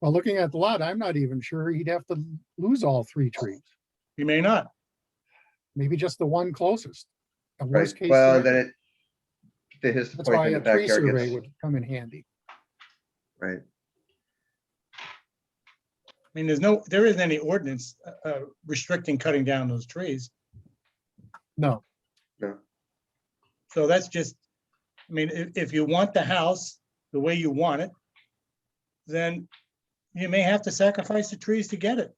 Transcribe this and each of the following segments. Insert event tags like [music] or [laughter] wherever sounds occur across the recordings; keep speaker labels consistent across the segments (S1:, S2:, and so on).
S1: Well, looking at the lot, I'm not even sure he'd have to lose all three trees,
S2: He may not.
S1: maybe just the one closest. The
S3: Right,
S1: worst case
S3: well, then
S1: scenario.
S3: it, to his
S1: That's
S3: point,
S1: why
S3: then the
S1: a tree
S3: backyard
S1: survey
S3: gets,
S1: would come in handy.
S3: right,
S2: I mean, there's no, there isn't any ordinance uh, uh, restricting cutting down those trees.
S1: No,
S2: So that's just, I mean, if, if you want the house the way you want it, then you may have to sacrifice the trees to get it.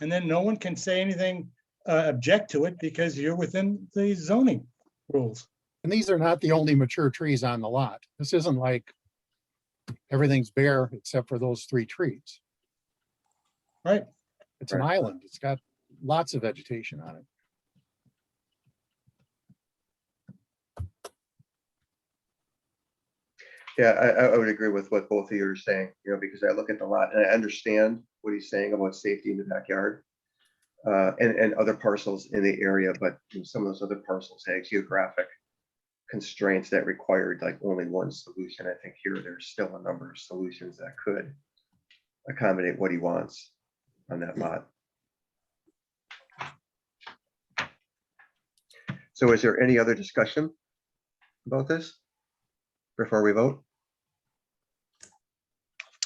S2: And then no one can say anything, uh, object to it because you're within the zoning rules.
S1: and these are not the only mature trees on the lot. This isn't like everything's bare except for those three trees.
S2: Right.
S1: It's an
S3: Right.
S1: island. It's got lots of vegetation on it.
S3: yeah, I, I, I would agree with what both of you are saying, you know, because I look at the lot and I understand what he's saying about safety in the backyard. Uh, and, and other parcels in the area, but you know, some of those other parcels had geographic constraints that required like only one solution. I think here there's still a number of solutions that could accommodate what he wants on that lot. So is there any other discussion about this before we vote?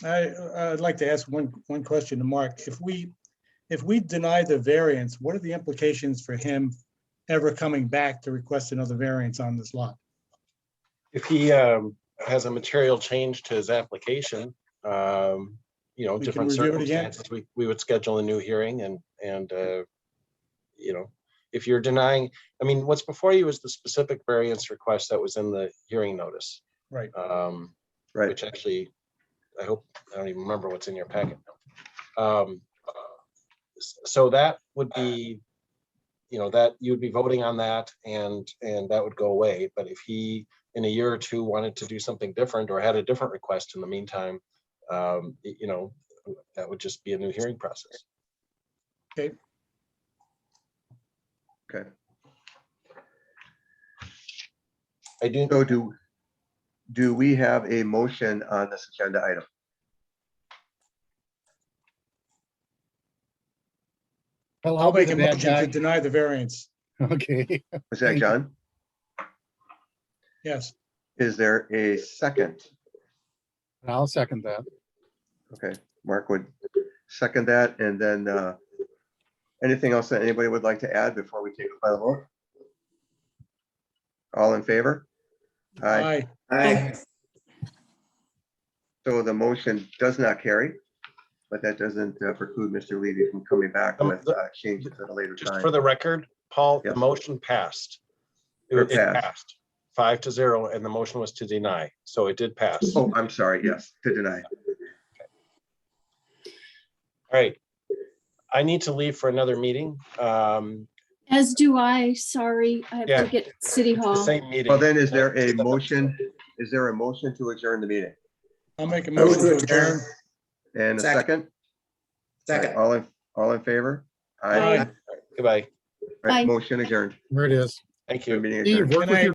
S2: I, uh, I'd like to ask one, one question to Mark. If we, if we deny the variance, what are the implications for him ever coming back to request another variance on this lot?
S4: if he um has a material change to his application, um, you know,
S2: We can
S4: different
S2: review it again.
S4: circumstances, we, we would schedule a new hearing and, and, uh, you know, if you're denying, I mean, what's before you is the specific variance request that was in the hearing notice.
S2: Right.
S4: Um,
S3: Right,
S4: which actually, I hope, I don't even remember what's in your packet now. Um, s- So that would be, you know, that you'd be voting on that and, and that would go away. But if he, in a year or two, wanted to do something different or had a different request in the meantime, um, y- you know, that would just be a new hearing process.
S3: okay.
S4: I do,
S3: So do, do we have a motion on this agenda item?
S1: Well,
S2: I'll
S1: be
S2: make
S1: the
S2: a
S1: bad
S2: motion
S1: guy.
S2: to deny the variance.
S1: [laughs] Okay,
S3: Was that John?
S2: Yes,
S3: Is there a second?
S1: I'll second that.
S3: Okay, Mark would second that, and then uh, anything else that anybody would like to add before we take a final vote? All in favor? Aye.
S2: aye.
S5: Aye.
S3: So the motion does not carry, but that doesn't uh, preclude Mr. Levy from coming back
S4: Um,
S3: with
S4: the-
S3: uh, changes at a later
S4: just
S3: time.
S4: for the record, Paul, the
S3: Yep.
S4: motion passed. It
S3: Or
S4: it
S3: passed.
S4: passed, five to zero, and the motion was to deny. So it did pass. All
S3: Oh, I'm sorry, yes, to deny.
S4: right. I need to leave for another meeting. Um,
S5: As do I, sorry, I have
S4: Yeah.
S5: to get to City
S4: the
S5: Hall.
S4: same meeting.
S3: Well, then, is there a motion, is there a motion to adjourn the meeting?
S2: I'll make a
S6: Move
S2: motion to
S6: to adjourn.
S2: adjourn.
S3: And a second?
S6: Second. Second.
S3: All in, all in favor?
S2: Aye.
S3: Aye.
S4: Goodbye.
S3: Right,
S5: Aye.
S3: Motion adjourned.
S1: There it is.
S4: Thank you.
S3: Meeting
S1: Steve,
S3: adjourned.
S1: work with
S2: Good
S1: your